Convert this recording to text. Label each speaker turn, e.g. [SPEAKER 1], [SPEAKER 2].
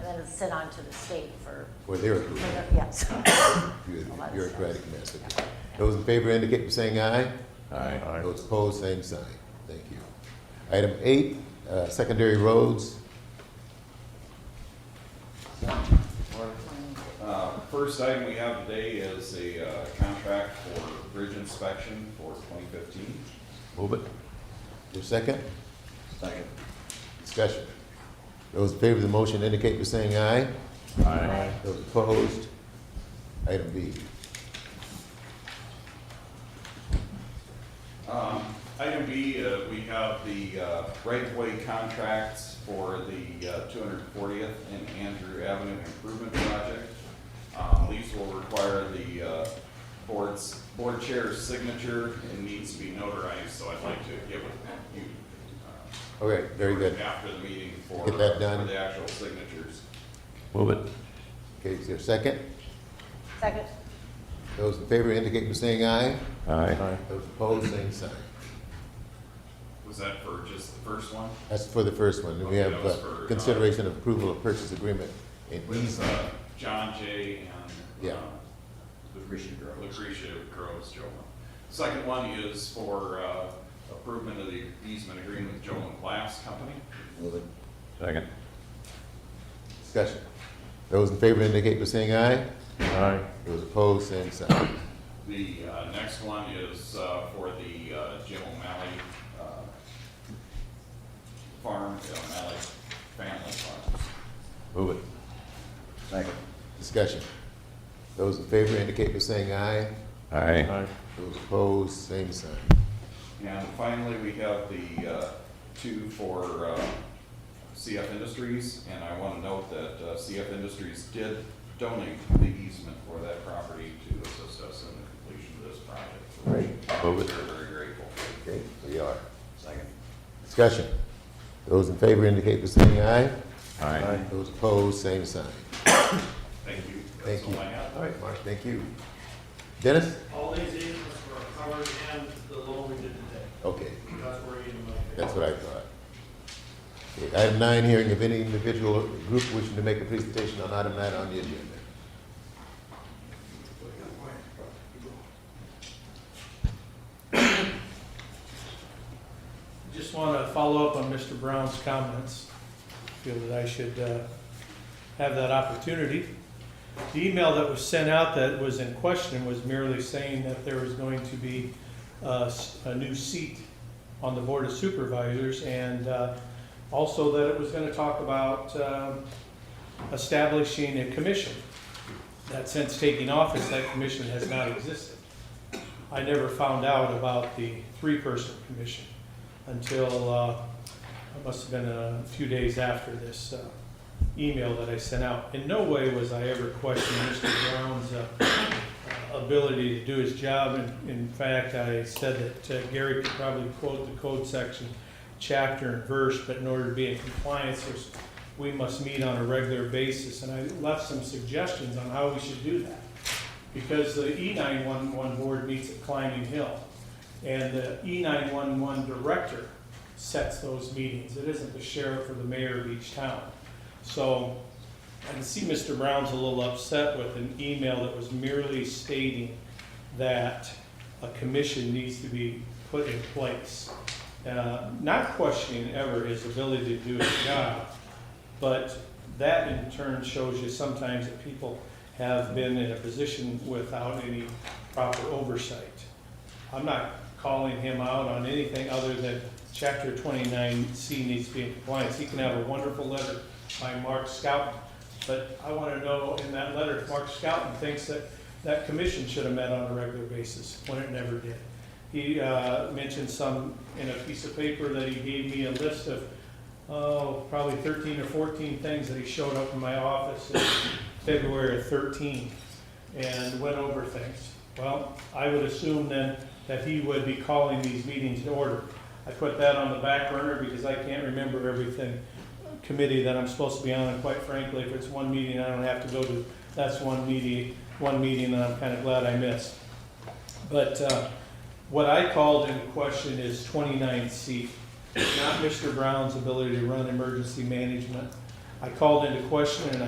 [SPEAKER 1] doesn't sit onto the state for,
[SPEAKER 2] Well, there
[SPEAKER 1] for
[SPEAKER 2] it is.
[SPEAKER 1] the- yes.
[SPEAKER 2] Good,
[SPEAKER 1] A lot of
[SPEAKER 2] bureaucratic method. Those in favor indicate by saying aye.
[SPEAKER 3] Aye.
[SPEAKER 2] Those opposed, same sign. Thank you. Item eight, uh, secondary roads.
[SPEAKER 4] Uh, First item we have today is a uh, contract for bridge inspection for 2015.
[SPEAKER 2] Move it. Your second,
[SPEAKER 4] Second.
[SPEAKER 2] discussion. Those in favor of the motion indicate by saying aye.
[SPEAKER 3] Aye.
[SPEAKER 2] Those opposed, item B.
[SPEAKER 4] Um, Item B, uh, we have the uh, right-of-way contracts for the uh, 240th and Andrew Avenue Improvement Project. Um, These will require the uh, board's, board chair's signature and needs to be notarized, so I'd like to give it you uh,
[SPEAKER 2] Okay, very good.
[SPEAKER 4] After the meeting for,
[SPEAKER 2] Get that done.
[SPEAKER 4] for the actual signatures.
[SPEAKER 3] Move it.
[SPEAKER 2] Okay, is there a second?
[SPEAKER 1] Second,
[SPEAKER 2] Those in favor indicate by saying aye.
[SPEAKER 3] Aye.
[SPEAKER 2] Those opposed, same sign.
[SPEAKER 4] Was that for just the first one?
[SPEAKER 2] That's for the first one. We
[SPEAKER 4] Okay,
[SPEAKER 2] have
[SPEAKER 4] that was
[SPEAKER 2] uh,
[SPEAKER 4] for, uh,
[SPEAKER 2] consideration of approval of purchase agreement and
[SPEAKER 4] With,
[SPEAKER 2] easement.
[SPEAKER 4] uh, John Jay and.
[SPEAKER 2] Yeah.
[SPEAKER 4] uh, Lucretia Groves. Joe. Second one is for, uh, improvement of the easement agreement with Joe and Glass Company.
[SPEAKER 3] Second.
[SPEAKER 2] Discussion. Those in favor indicate by saying aye.
[SPEAKER 3] Aye.
[SPEAKER 2] Those opposed, same sign.
[SPEAKER 4] The, uh, next one is, uh, for the, uh, Jim O'Malley, uh, farm, the O'Malley family farm.
[SPEAKER 3] Move it.
[SPEAKER 2] Discussion. Those in favor indicate by saying aye.
[SPEAKER 3] Aye.
[SPEAKER 2] Those opposed, same sign.
[SPEAKER 4] And finally, we have the uh, two for uh, CF Industries, and I want to note that uh, CF Industries did donate the easement for that property to assist us in the completion of this project. for
[SPEAKER 3] Move
[SPEAKER 4] which
[SPEAKER 3] it.
[SPEAKER 4] We're very grateful.
[SPEAKER 2] Okay, we are.
[SPEAKER 4] Second.
[SPEAKER 2] Discussion. Those in favor indicate by saying aye.
[SPEAKER 3] Aye.
[SPEAKER 2] Those opposed, same sign.
[SPEAKER 4] Thank you.
[SPEAKER 2] Thank
[SPEAKER 4] That's
[SPEAKER 2] you.
[SPEAKER 4] all I have.
[SPEAKER 2] All right, Mark, thank you. Dennis?
[SPEAKER 5] All these easements were covered and the loan we did today.
[SPEAKER 2] Okay,
[SPEAKER 5] That's where you get the money.
[SPEAKER 2] that's what I thought. Okay, Item nine, hearing of any individual or group wishing to make a presentation on item nine on the agenda.
[SPEAKER 5] Just want to follow up on Mr. Brown's comments. Feel that I should uh, have that opportunity. The email that was sent out that was in question was merely saying that there was going to be uh, s- a new seat on the Board of Supervisors, and uh, also that it was going to talk about um, establishing a commission. That since taking office, that commission has not existed. I never found out about the three-person commission until, uh, it must have been a few days after this uh, email that I sent out. In no way was I ever questioning Mr. Brown's uh, uh, ability to do his job. In- In fact, I said that uh, Gary could probably quote the code section, chapter and verse, but in order to be in compliance, there's- we must meet on a regular basis. And I left some suggestions on how we should do that. Because the E E911 board meets at Climbing Hill. And the E E911 director sets those meetings. It isn't the sheriff or the mayor of each town. So I can see Mr. Brown's a little upset with an email that was merely stating that a commission needs to be put in place. Uh, Not questioning ever his ability to do his job, but that in turn shows you sometimes that people have been in a position without any proper oversight. I'm not calling him out on anything other than chapter twenty-nine C needs to be in compliance. He can have a wonderful letter by Mark Scouten, but I wanna know in that letter, if Mark Scouten thinks that that commission should have met on a regular basis, when it never did. He, uh, mentioned some, in a piece of paper that he gave me a list of, oh, probably thirteen or fourteen things that he showed up in my office in February of thirteen and went over things. Well, I would assume then that he would be calling these meetings in order. I put that on the back burner because I can't remember everything committee that I'm supposed to be on, and quite frankly, if it's one meeting I don't have to go to, that's one meeting, one meeting that I'm kind of glad I missed. But uh, what I called into question is 29C, not Mr. Brown's ability to run emergency management. I called into question, and